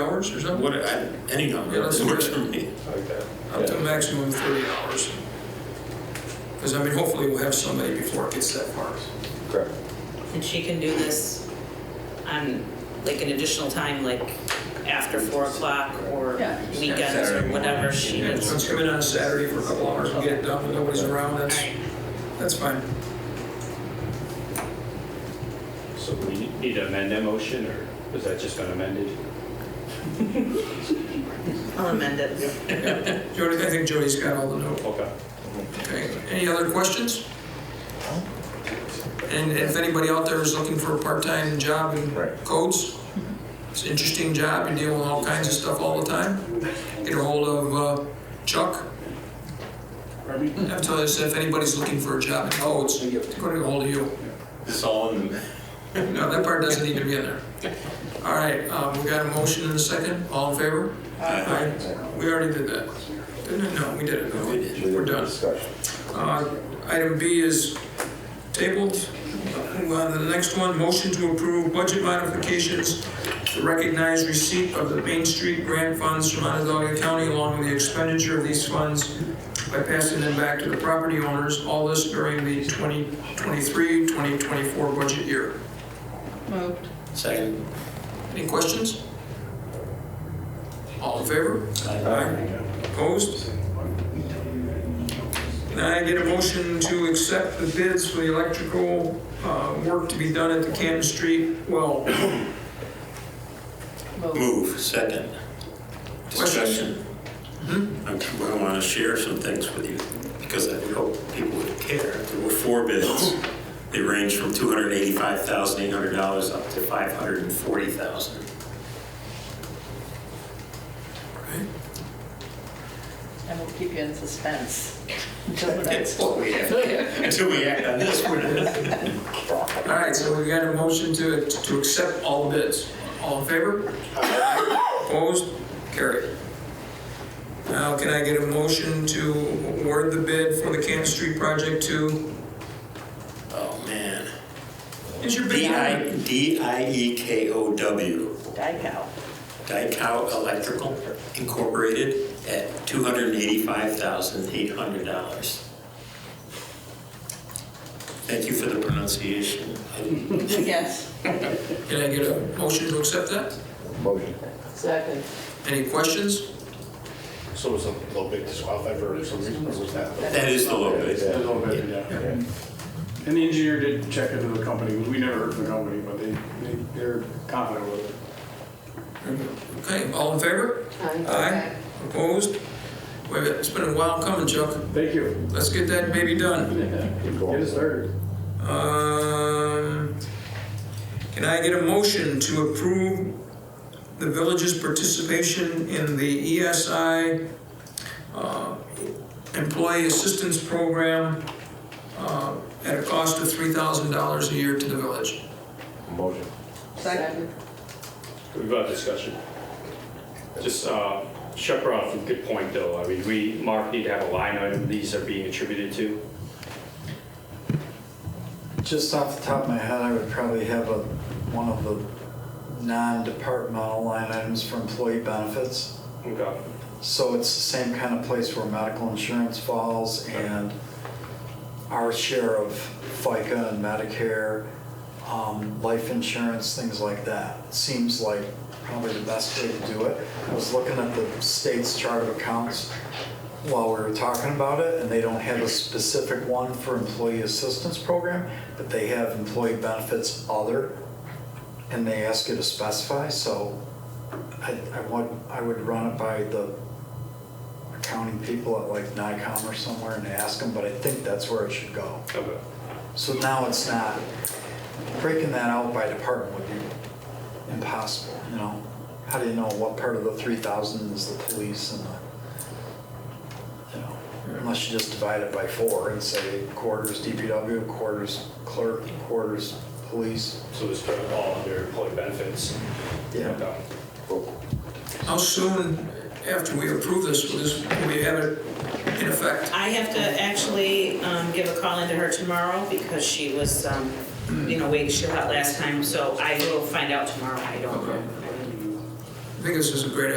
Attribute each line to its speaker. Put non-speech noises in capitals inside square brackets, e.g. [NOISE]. Speaker 1: hours or something?
Speaker 2: What, I- any number,
Speaker 1: Yeah, let's
Speaker 2: it
Speaker 1: do
Speaker 2: works
Speaker 1: it.
Speaker 2: for me.
Speaker 3: Okay.
Speaker 1: Up to a maximum of 30 hours. Because I mean, hopefully we'll have somebody before it gets that far.
Speaker 3: Correct.
Speaker 4: And she can do this on, like, an additional time, like, after four o'clock or
Speaker 5: Yeah.
Speaker 4: weekends
Speaker 2: Saturday
Speaker 4: or
Speaker 2: morning.
Speaker 4: whatever she
Speaker 2: Yeah.
Speaker 4: needs.
Speaker 1: Let's come in on a Saturday for a couple hours and get it done when nobody's around,
Speaker 4: All
Speaker 1: that's,
Speaker 4: right.
Speaker 1: that's fine.
Speaker 6: So we need to amend that motion, or is that just been amended?
Speaker 4: I'll amend it.
Speaker 1: Jody, I think Jody's got all the notes.
Speaker 6: Okay.
Speaker 1: Okay, any other questions? And if anybody out there is looking for a part-time job in
Speaker 3: Right.
Speaker 1: codes, it's an interesting job, you deal with all kinds of stuff all the time. Get a hold of uh, Chuck. I've told us if anybody's looking for a job in codes, go to hold of you.
Speaker 2: It's all in the.
Speaker 1: No, that part doesn't need to be in there. All right, um, we got a motion and a second, all in favor? Aye. We already did that. Didn't it? No, we did it. No, we did. We're done.
Speaker 3: Discussion.
Speaker 1: Uh, Item B is tabled. Move on to the next one, motion to approve budget modifications to recognize receipt of the Main Street grant funds from Onondaga County along with the expenditure of these funds by passing them back to the property owners, all this during the 2023-2024 budget year.
Speaker 5: Moved.
Speaker 2: Second.
Speaker 1: Any questions? All in favor? Aye. Opposed? Can I get a motion to accept the bids for the electrical uh, work to be done at the Canton Street well?
Speaker 5: Moved.
Speaker 2: Move, second. Discussion.
Speaker 1: Mm-hmm.
Speaker 2: I want to share some things with you because I would hope people would care. There were four
Speaker 1: [GASPS]
Speaker 2: bids. They ranged from $285,800 up to $540,000.
Speaker 5: And we'll keep you in suspense until
Speaker 2: [LAUGHS]
Speaker 5: the next.
Speaker 2: what
Speaker 1: [LAUGHS]
Speaker 2: we have. Until we act on this, we're not.
Speaker 1: All right, so we got a motion to, to accept all bids. All in favor? Opposed? Carried. Now, can I get a motion to award the bid for the Canton Street project to,
Speaker 2: Oh, man.
Speaker 1: is your bid?
Speaker 2: D I, D I E K O W.
Speaker 5: Dykow.
Speaker 2: Dykow Electrical Incorporated at $285,800. Thank you for the pronunciation.
Speaker 5: Yes.
Speaker 1: Can I get a motion to accept that?
Speaker 3: Motion.
Speaker 5: Second.
Speaker 1: Any questions?
Speaker 7: So was a little bit disqualified for some reason, or was that?
Speaker 2: That is the low bid.
Speaker 7: A little bit, yeah. And the engineer did check into the company, we never heard from the company, but they, they, they're confident with it.
Speaker 1: Okay, all in favor? Aye. Opposed? Wait a minute, it's been a while coming, Chuck.
Speaker 7: Thank you.
Speaker 1: Let's get that baby done.
Speaker 7: Get us started.
Speaker 1: Um, Can I get a motion to approve the village's participation in the ESI uh, Employee Assistance Program uh, at a cost of $3,000 a year to the village?
Speaker 3: Motion.
Speaker 5: Second.
Speaker 6: We've got a discussion. Just, uh, Chuck brought up a good point, though. I mean, we, Mark, need to have a line item these are being attributed to.
Speaker 8: Just off the top of my head, I would probably have a, one of the non-departmental line items for employee benefits.
Speaker 6: Okay.
Speaker 8: So it's the same kind of place where medical insurance falls and our share of FICA and Medicare, um, life insurance, things like that. Seems like probably the best way to do it. I was looking at the state's chart of accounts while we were talking about it, and they don't have a specific one for employee assistance program, but they have employee benefits other, and they ask you to specify, so I, I would, I would run it by the accounting people at like NICOM or somewhere and ask them, but I think that's where it should go.
Speaker 6: Okay.
Speaker 8: So now it's not, breaking that out by department would be impossible, you know? How do you know what part of the three thousand is the police and the, you know? Unless you just divide it by four and say quarters DPW, quarters clerk, quarters police.
Speaker 6: So this put all under employee benefits. Okay.
Speaker 1: How soon after we approve this, will this, will we have it in effect?
Speaker 4: I have to actually um, give a call into her tomorrow because she was, um, you know, waiting shift out last time, so I will find out tomorrow. I don't know.
Speaker 1: I think this is a great